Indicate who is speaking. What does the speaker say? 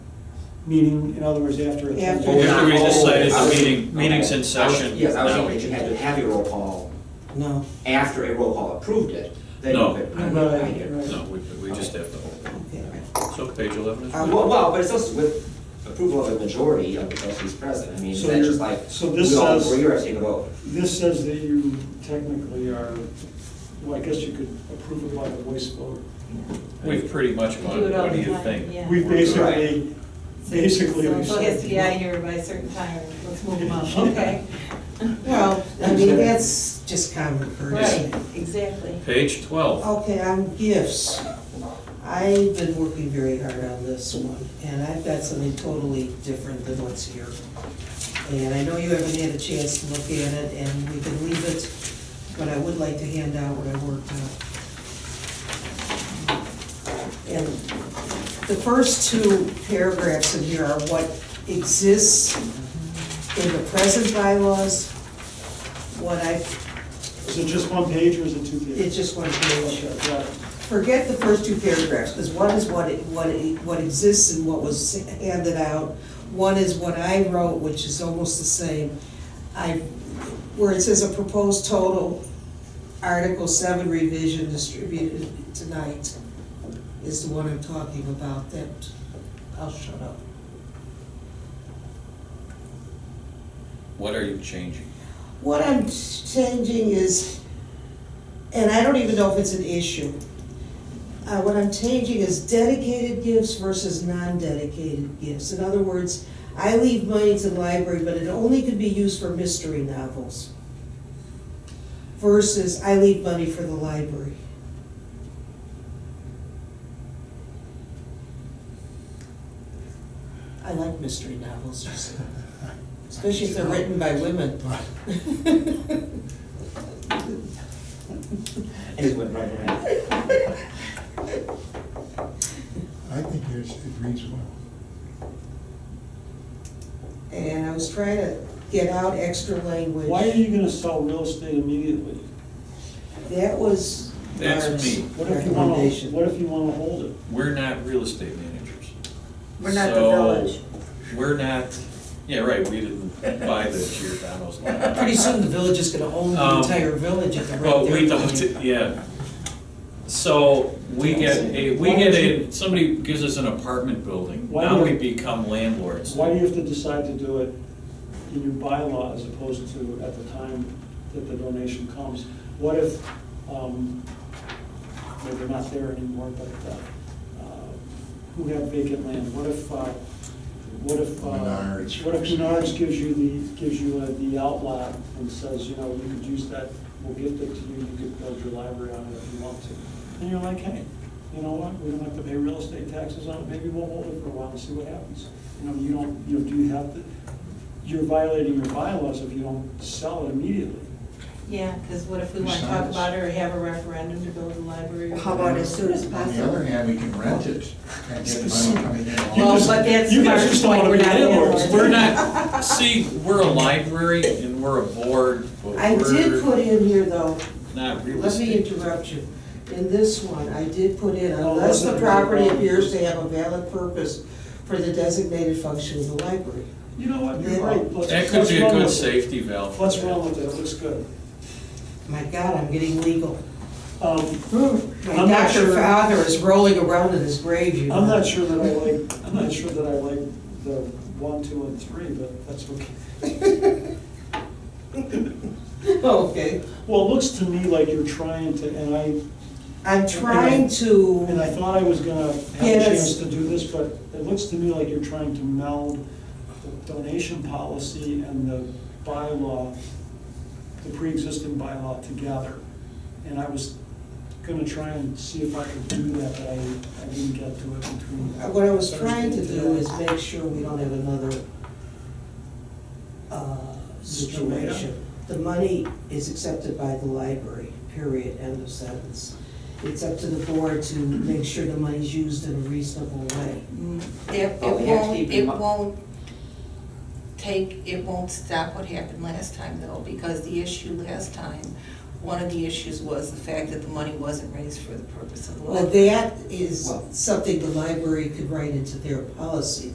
Speaker 1: meeting, in other words, after. it-
Speaker 2: After.
Speaker 3: After we decided
Speaker 4: I
Speaker 3: the
Speaker 4: was-
Speaker 3: meeting, meeting's
Speaker 4: okay. I
Speaker 3: in
Speaker 4: was-
Speaker 3: session.
Speaker 4: Yes, I was
Speaker 3: now.
Speaker 4: thinking that you had to have a roll call
Speaker 2: No,
Speaker 4: after a roll call approved it, then you
Speaker 3: No.
Speaker 4: could. I- I
Speaker 1: Right,
Speaker 4: get it.
Speaker 1: right.
Speaker 3: No, we, we just have to hold.
Speaker 2: okay.
Speaker 3: So page eleven is.
Speaker 2: Um,
Speaker 4: Uh, Well, well, but it's also with approval of a majority of the trustees present, I mean,
Speaker 1: So
Speaker 4: that's
Speaker 1: you're-
Speaker 4: just like,
Speaker 1: so this
Speaker 4: we all
Speaker 1: says-
Speaker 4: agree or take a vote.
Speaker 1: This says that you technically are, well, I guess you could approve it by a voice vote.
Speaker 3: We've pretty much
Speaker 5: Do
Speaker 3: gone,
Speaker 5: it all
Speaker 3: what do
Speaker 5: the
Speaker 3: you
Speaker 5: time,
Speaker 3: think?
Speaker 5: yeah.
Speaker 1: We
Speaker 3: We're good.
Speaker 1: basically, basically.
Speaker 5: So
Speaker 1: we
Speaker 5: if it has to be out of
Speaker 1: said-
Speaker 5: here by a certain time, let's move them up, okay?
Speaker 2: Well, I mean, that's just common courtesy.
Speaker 5: Right, exactly.
Speaker 3: Page twelve,
Speaker 2: Okay, on gifts, I've been working very hard on this one, and I've got something totally different than what's here. And I know you haven't had a chance to look at it, and we can leave it, but I would like to hand out what I worked on. And the first two paragraphs in here are what exists in the present bylaws, what I,
Speaker 1: Is it just one page or is it two
Speaker 2: it's
Speaker 1: pages?
Speaker 2: just one page.
Speaker 1: Okay, got it.
Speaker 2: Forget the first two paragraphs, because one is what, it- what, it- what exists and what was handed out. One is what I wrote, which is almost the same. I, where it says a proposed total, Article seven revision distributed tonight is the one I'm talking about, that, I'll shut up.
Speaker 3: what are you changing?
Speaker 2: What I'm changing is, and I don't even know if it's an issue. Uh, what I'm changing is dedicated gifts versus non-dedicated gifts. In other words, I leave money to the library, but it only could be used for mystery novels. Versus I leave money for the library. I like mystery novels, you see. especially if they're written by women.
Speaker 4: I just went right around.
Speaker 6: I think yours, it reads well.
Speaker 2: And I was trying to get out extra language.
Speaker 1: Why are you gonna sell real estate immediately?
Speaker 2: That was
Speaker 3: That's
Speaker 2: Mark's
Speaker 3: me.
Speaker 1: What if you wanna,
Speaker 2: recommendation.
Speaker 1: what if you wanna hold it?
Speaker 3: We're not real estate managers.
Speaker 5: We're not the
Speaker 3: So,
Speaker 5: village.
Speaker 3: We're not, yeah, right, we didn't buy the Giordano's land.
Speaker 2: Pretty soon the village is gonna own the
Speaker 3: Um,
Speaker 2: entire village at the rate
Speaker 3: Well, we
Speaker 2: they're
Speaker 3: don't,
Speaker 2: going.
Speaker 3: yeah. So, we get a, we get a, somebody gives us an apartment building,
Speaker 1: Why
Speaker 3: now
Speaker 1: do-
Speaker 3: we become landlords.
Speaker 1: Why do you have to decide to do it in your bylaw as opposed to at the time that the donation comes? What if, um, well, they're not there anymore, but, uh, uh, who have vacant land? What if, uh, what if, uh,
Speaker 6: Menards.
Speaker 1: what if Menards gives you the, gives you uh, the outlot and says, you know, you could use that, we'll gift it to you, you could build your library on it if you want to. And you're like, hey, you know what, we don't have to pay real estate taxes on it, maybe we'll hold it for a while and see what happens. You know, you don't, you know, do you have to, you're violating your bylaws if you don't sell it immediately.
Speaker 5: Yeah, because what if we want to talk
Speaker 6: Besides-
Speaker 5: about it or have a referendum to build a library? or
Speaker 7: How about as soon as
Speaker 6: On the other
Speaker 7: possible?
Speaker 6: hand, we can rent it and get money coming in.
Speaker 1: You
Speaker 5: Well,
Speaker 1: just-
Speaker 5: but that's
Speaker 1: you guys
Speaker 5: Mark's
Speaker 1: just don't wanna
Speaker 5: point,
Speaker 1: be
Speaker 5: we're not
Speaker 1: landlords.
Speaker 5: landlords.
Speaker 3: We're not, see, we're a library and we're a board, but
Speaker 2: I did
Speaker 3: we're
Speaker 2: put in here though,
Speaker 3: not real
Speaker 2: let me
Speaker 3: estate.
Speaker 2: interrupt you. In this one, I did put in,
Speaker 1: Oh,
Speaker 2: unless the
Speaker 1: wasn't it
Speaker 2: property
Speaker 1: wrong?
Speaker 2: appears to have a valid purpose for the designated function of the library.
Speaker 1: You know what, you're right. Let's-
Speaker 3: That could
Speaker 1: let's
Speaker 3: be a
Speaker 1: run with
Speaker 3: good
Speaker 1: it.
Speaker 3: safety valve. for
Speaker 1: Let's
Speaker 3: that.
Speaker 1: run with it, it looks good.
Speaker 2: My God, I'm getting legal.
Speaker 1: Um,
Speaker 2: My
Speaker 1: I'm not
Speaker 2: doctor
Speaker 1: sure-
Speaker 2: father is rolling around in his grave, you know.
Speaker 1: I'm not sure that I like, I'm not sure that I like the one, two, and three, but that's okay.
Speaker 2: Okay.
Speaker 1: Well, it looks to me like you're trying to, and I,
Speaker 2: I'm trying to.
Speaker 1: and I thought I was gonna have a chance
Speaker 2: Yes.
Speaker 1: to do this, but it looks to me like you're trying to meld the donation policy and the bylaw, the pre-existing bylaw together. And I was gonna try and see if I could do that, but I, I didn't get to it between.
Speaker 2: What I was trying to
Speaker 1: Thursday
Speaker 2: do
Speaker 1: and
Speaker 2: is
Speaker 1: today.
Speaker 2: make sure we don't have another uh, situation. The money is accepted by the library, period, end of sentence. It's up to the board to make sure the money's used in a reasonable way.
Speaker 5: Mm.
Speaker 7: It, it
Speaker 4: But Oh, we have to
Speaker 7: won't,
Speaker 4: keep in
Speaker 7: it
Speaker 4: mi-
Speaker 7: won't take, it won't stop what happened last time though, because the issue last time, one of the issues was the fact that the money wasn't raised for the purpose of the
Speaker 2: Well,
Speaker 7: law.
Speaker 2: that is
Speaker 4: Well-
Speaker 2: something the library could write into their policy,